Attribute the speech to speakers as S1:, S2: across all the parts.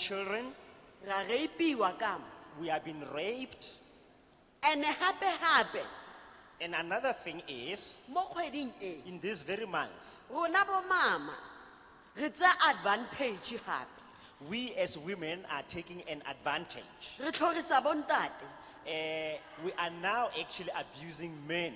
S1: children,
S2: ra reipiwa kama
S1: we have been raped.
S2: ene hape hape
S1: And another thing is,
S2: mo kgweding e
S1: in this very month,
S2: rona bo mama re tsaya advantage gape
S1: we as women are taking an advantage.
S2: re tlhorisa bontate
S1: Eh, we are now actually abusing men.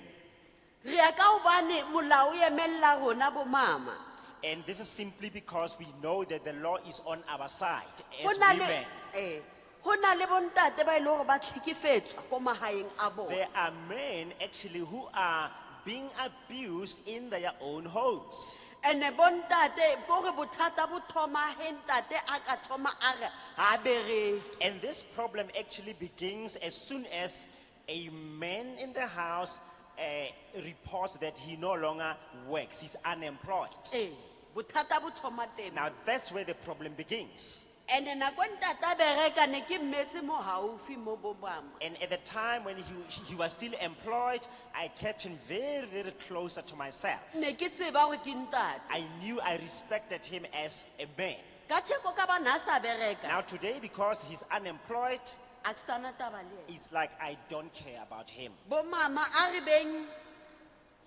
S2: re ya ka gobane molao o emelela rona bo mama
S1: And this is simply because we know that the law is on our side
S2: go
S1: as
S2: na
S1: women.
S2: le eh, go na le bontate ba e leng gore ba tlhekefetswa ko magaeng a bone
S1: There are men actually who are being abused in their own homes.
S2: and-e bontate kore bothata bo thoma he ntate a ka thoma a re ga bereke
S1: And this problem actually begins as soon as a man in the house eh, reports that he no longer works, he's unemployed.
S2: ee bothata bo thoma teng
S1: Now that's where the problem begins.
S2: and-e nako e ntate a bereka ne ke mmetse mo gaufi mo bo mama
S1: And at the time when he, he was still employed, I kept him very, very closer to myself.
S2: ne ke tseba gore ke ntate
S1: I knew I respected him as a man.
S2: ka tsheko ka bana a sa bereka
S1: Now today, because he's unemployed,
S2: a ke sana taba le ena
S1: it's like I don't care about him.
S2: bo mama a re beng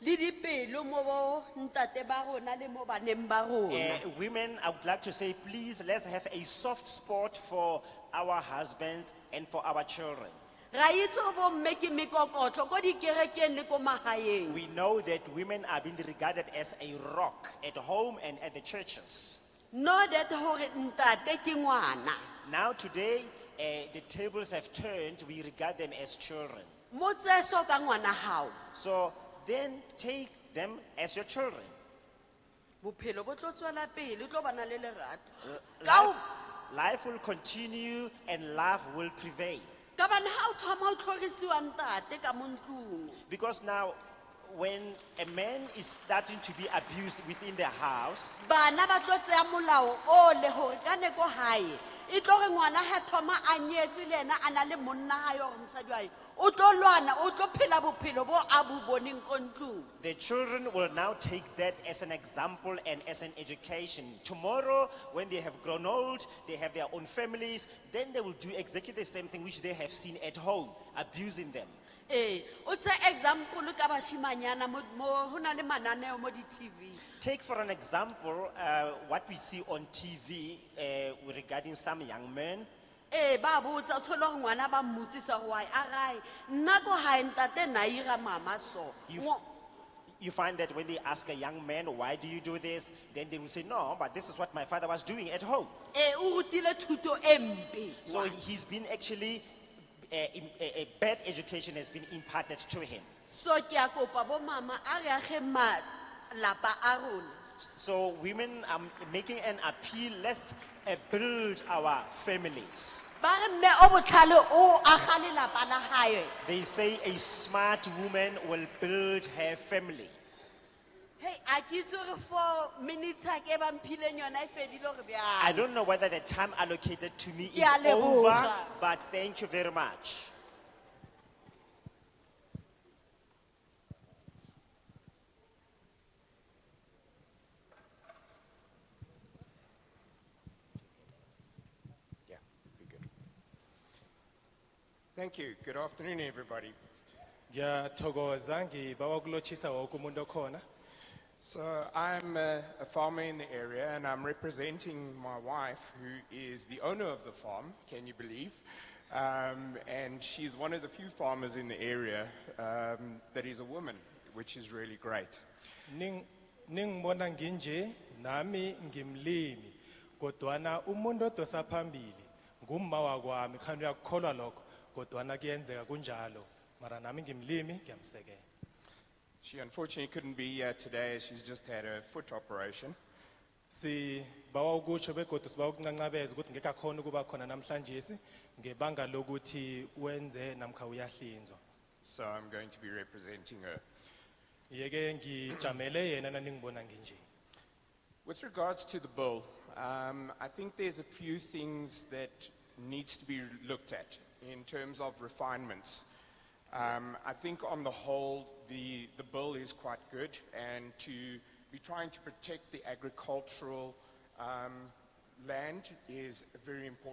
S2: le dipelo mo bo ntate ba rona le mo baneng ba rona
S1: Uh, women, I would like to say, please, let's have a soft spot for our husbands and for our children.
S2: ra itse go bomme ke mekokotlo ko dikerekeng le ko magaeng
S1: We know that women are being regarded as a rock at home and at the churches.
S2: no that gore ntate ke ngwana
S1: Now, today, uh, the tables have turned. We regard them as children.
S2: motseso ka ngwana gago
S1: So then take them as your children.
S2: bophelo bo tlo tswela pele o tlo bana le lerato ka
S1: Life,
S2: o-
S1: life will continue and love will prevail.
S2: ka bane ga o thoma o tlhorisiwa ntate ka mo ntlong
S1: Because now, when a man is starting to be abused within the house,
S2: bana ba tlo tseya molao o le gore ka neko gae e tlo re ngwana ga thoma a nyetse le ena a na le monna gae gore mosadi wae o tlo lwana o tlo phela bophelo bo a bo boneng ko ntlong
S1: The children will now take that as an example and as an education. Tomorrow, when they have grown old, they have their own families, then they will do exactly the same thing which they have seen at home, abusing them.
S2: ee o tse example ka bašimanyana go na le mananeo mo di-tv
S1: Take for an example uh, what we see on TV uh, regarding some young men.
S2: ee ba botsa o tshole gore ngwana ba mmotsisa gore wae a rae nna ko gae ntate naira mama so
S1: You-
S2: Ngo-
S1: You find that when they ask a young man, Why do you do this? then they will say, No, but this is what my father was doing at home.
S2: ee o rutile thuto e mpe
S1: So he's been actually, uh, in- a a bad education has been imparted to him.
S2: so ke a kopa bo mama a re age malapa a rona
S1: So women are making an appeal, let's uh, build our families.
S2: ba re mme o botlhale o aga lelapa la gae
S1: They say a smart woman will build her family.
S2: hei a ke itse gore four minutes a ke bamphileng yona e fedile gore
S1: I
S2: bjang
S1: don't know whether the time allocated to me
S2: Ke
S1: is
S2: a leboga.
S1: over, but thank you very much.
S3: Yeah, be good. Thank you. Good afternoon, everybody.
S4: ngiyathokoza ngibawa kulotshisa woke umuntu okhona
S3: So I'm a, a farmer in the area, and I'm representing my wife, who is the owner of the farm. Can you believe? Um, and she's one of the few farmers in the area um, that is a woman, which is really great.
S4: Ning- ningibona nginje nami ngimlimi kodwana umuntu odosa phambili ngumma wakwami khani uyakukholwa lokho kodwana kuyenzeka kunjalo mara nami ngimlimi ngiyamsekela
S3: She unfortunately couldn't be here today. She's just had a foot operation.
S4: sibawa ukutsho begodu sibawa ukuncancabeza ukuthi ngeke akhona ukuba khona namhlanje ngebanga lokuthi wenze namkha uyahlinzwa
S3: So I'm going to be representing her.
S4: yeke ngijamele yena naningibona nginje
S3: With regards to the bill, um, I think there's a few things that needs to be looked at in terms of refinements. Um, I think on the whole, the, the bill is quite good and to be trying to protect the agricultural um, land is very important.